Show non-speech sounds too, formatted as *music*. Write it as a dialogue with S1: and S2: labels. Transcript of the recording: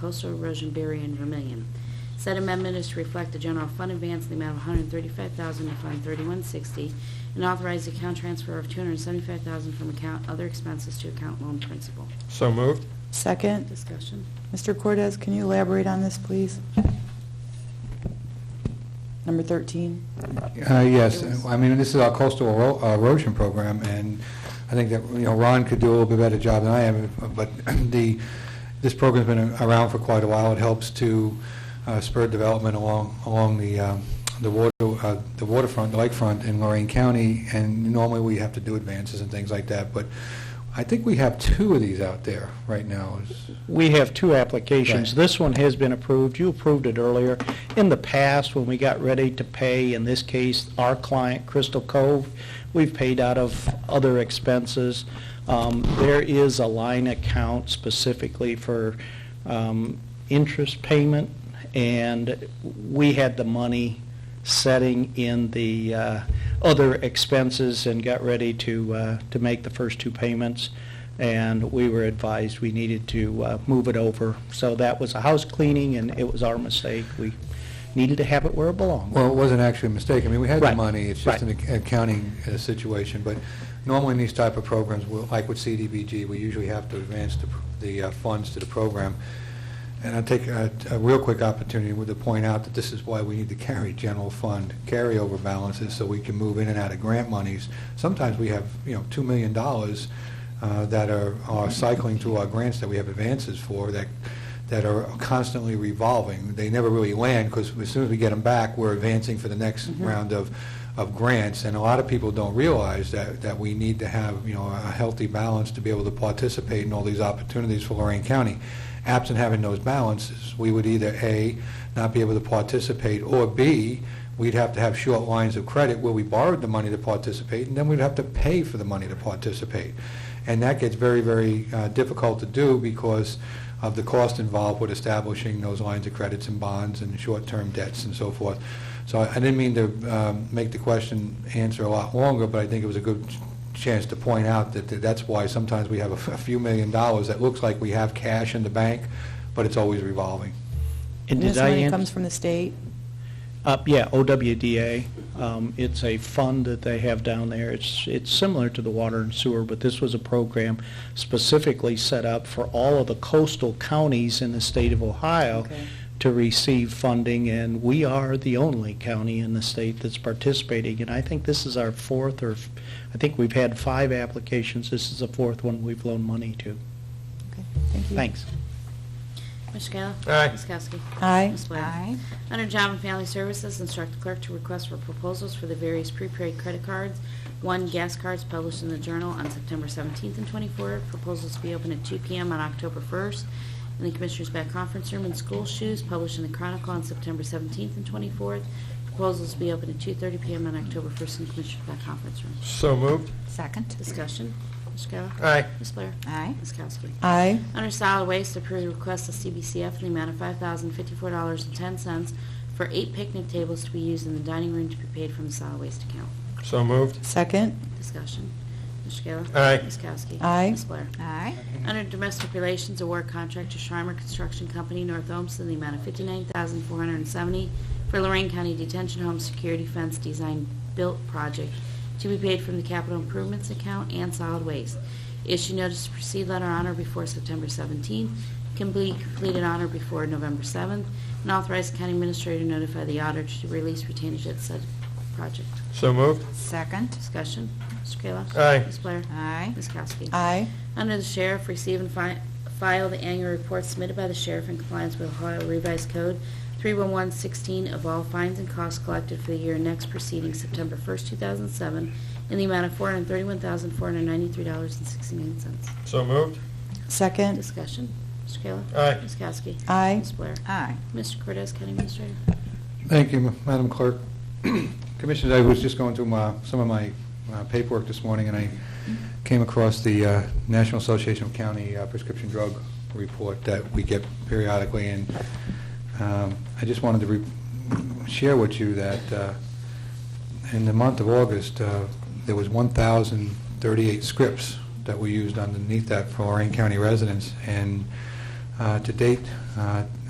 S1: coastal erosion barrier in Vermillion. Said amendment is to reflect the general fund advance in the amount of $135,000 to Fund 3160 and authorize account transfer of $275,000 from account other expenses to account loan principal.
S2: So moved.
S3: Second.
S1: Discussion.
S3: Mr. Cortez, can you elaborate on this, please? Number 13.
S4: Uh, Yes, I mean, this is our coastal ero- uh, erosion program, and I think that, you know, Ron could do a little bit better job than I am, *clears throat* but the, this program's been around for quite a while. It helps to uh, spur development along, along the, um, the water, uh, the waterfront, the lakefront in Lorraine County, and normally we have to do advances and things like that, but I think we have two of these out there right now. Is-
S5: We have two applications.
S4: Right.
S5: This one has been approved. You approved it earlier. In the past, when we got ready to pay, in this case, our client, Crystal Cove, we've paid out of other expenses. Um, There is a line account specifically for um, interest payment, and we had the money setting in the uh, other expenses and got ready to, uh, to make the first two payments and we were advised we needed to uh, move it over. So that was a house cleaning, and it was our mistake. We needed to have it where it belonged.
S4: Well, it wasn't actually a mistake. I mean, we had the
S5: Right.
S4: money, it's just an
S5: Right.
S4: ac- accounting uh, situation. But normally in these type of programs, we'll- like with CDBG, we usually have to advance the pr- the uh, funds to the program. And I take a a real quick opportunity to point out that this is why we need to carry general fund carryover balances, so we can move in and out of grant monies. Sometimes we have, you know, $2 million uh, that are are cycling through our grants that we have advances for, that that are constantly revolving. They never really land, because as soon as we get them back, we're advancing for the next round of, of grants. And a lot of people don't realize that, that we need to have, you know, a healthy balance to be able to participate in all these opportunities for Lorraine County. Absent having those balances, we would either, A, not be able to participate, or B, we'd have to have short lines of credit where we borrowed the money to participate, and then we'd have to pay for the money to participate. And that gets very, very uh, difficult to do because of the cost involved with establishing those lines of credits and bonds and short-term debts and so forth. So I I didn't mean to um, make the question answer a lot longer, but I think it was a good chance to point out that that that's why sometimes we have a f- a few million dollars that looks like we have cash in the bank, but it's always revolving.
S5: And did
S3: This
S5: I
S3: money
S5: ans-
S3: comes from the state?
S5: Uh, yeah, OWDA. Um, It's a fund that they have down there. It's, it's similar to the water and sewer, but this was a program specifically set up for all of the coastal counties in the state of Ohio
S3: Okay.
S5: to receive funding, and we are the only county in the state that's participating. And I think this is our fourth, or, f- I think we've had five applications. This is the fourth one we've loaned money to.
S3: Okay, Thank you.
S5: Thanks.
S1: Mr. Kayla?
S2: Aye.
S1: Ms. Kowski?
S3: Aye.
S1: Ms. Blair? Under Job and Family Services, instruct the clerk to request for proposals for the various prepaid credit cards. One, gas cards published in the Journal on September 17th and 24th. Proposals to be open at 2 PM on October 1st in the Commissioners' Back Conference Room. And school shoes published in the Chronicle on September 17th and 24th. Proposals to be open at 2:30 PM on October 1st in the Commissioners' Back Conference Room.
S2: So moved.
S6: Second.
S1: Discussion. Mr. Kayla?
S2: Aye.
S1: Ms. Blair?
S6: Aye.
S1: Ms. Kowski?
S3: Aye.
S1: Under solid waste, approve the request of CBCF in the amount of $5,054.10 for eight picnic tables to be used in the dining room to be paid from the solid waste account.
S2: So moved.
S3: Second.
S1: Discussion. Mr. Kayla?
S2: Aye.
S1: Ms. Kowski?
S3: Aye.
S1: Ms. Blair?
S6: Aye.
S1: Under Domestic Relations, award contract to Schreimer Construction Company, North Olmsted, in the amount of 59470 for Lorraine County Detention Home Security Fence Design Built Project to be paid from the Capital Improvements Account and Solid Waste. Issue notice to proceed letter honor before September 17th, can be completed honor before November 7th, and authorize the county administrator to notify the auditor to release retainage at said project.
S2: So moved.
S6: Second.
S1: Discussion. Mr. Kayla?
S2: Aye.
S1: Ms. Blair?
S6: Aye.
S1: Ms. Kowski?
S3: Aye.
S1: Under the sheriff, receive and fi- file the annual report submitted by the sheriff in compliance with Ohio Revised Code 31116 of all fines and costs collected for the year next preceding September 1st, 2007, in the amount of $431,493.69.
S2: So moved.
S3: Second.
S1: Discussion. Mr. Kayla?
S2: Aye.
S1: Ms. Kowski?
S3: Aye.
S1: Ms. Blair?
S6: Aye.
S1: Mr. Cortez, County Administrator?
S4: Thank you, Madam Clerk. Commissioners, I was just going through my, some of my uh, paperwork this morning, and I came across the uh, National Association of County uh, Prescription Drug Report that we get periodically, and um, I just wanted to re- share with you that uh, in the month of August, uh, there was 1,038 scripts that were used underneath that for Lorraine County residents, and uh, to date. Uh,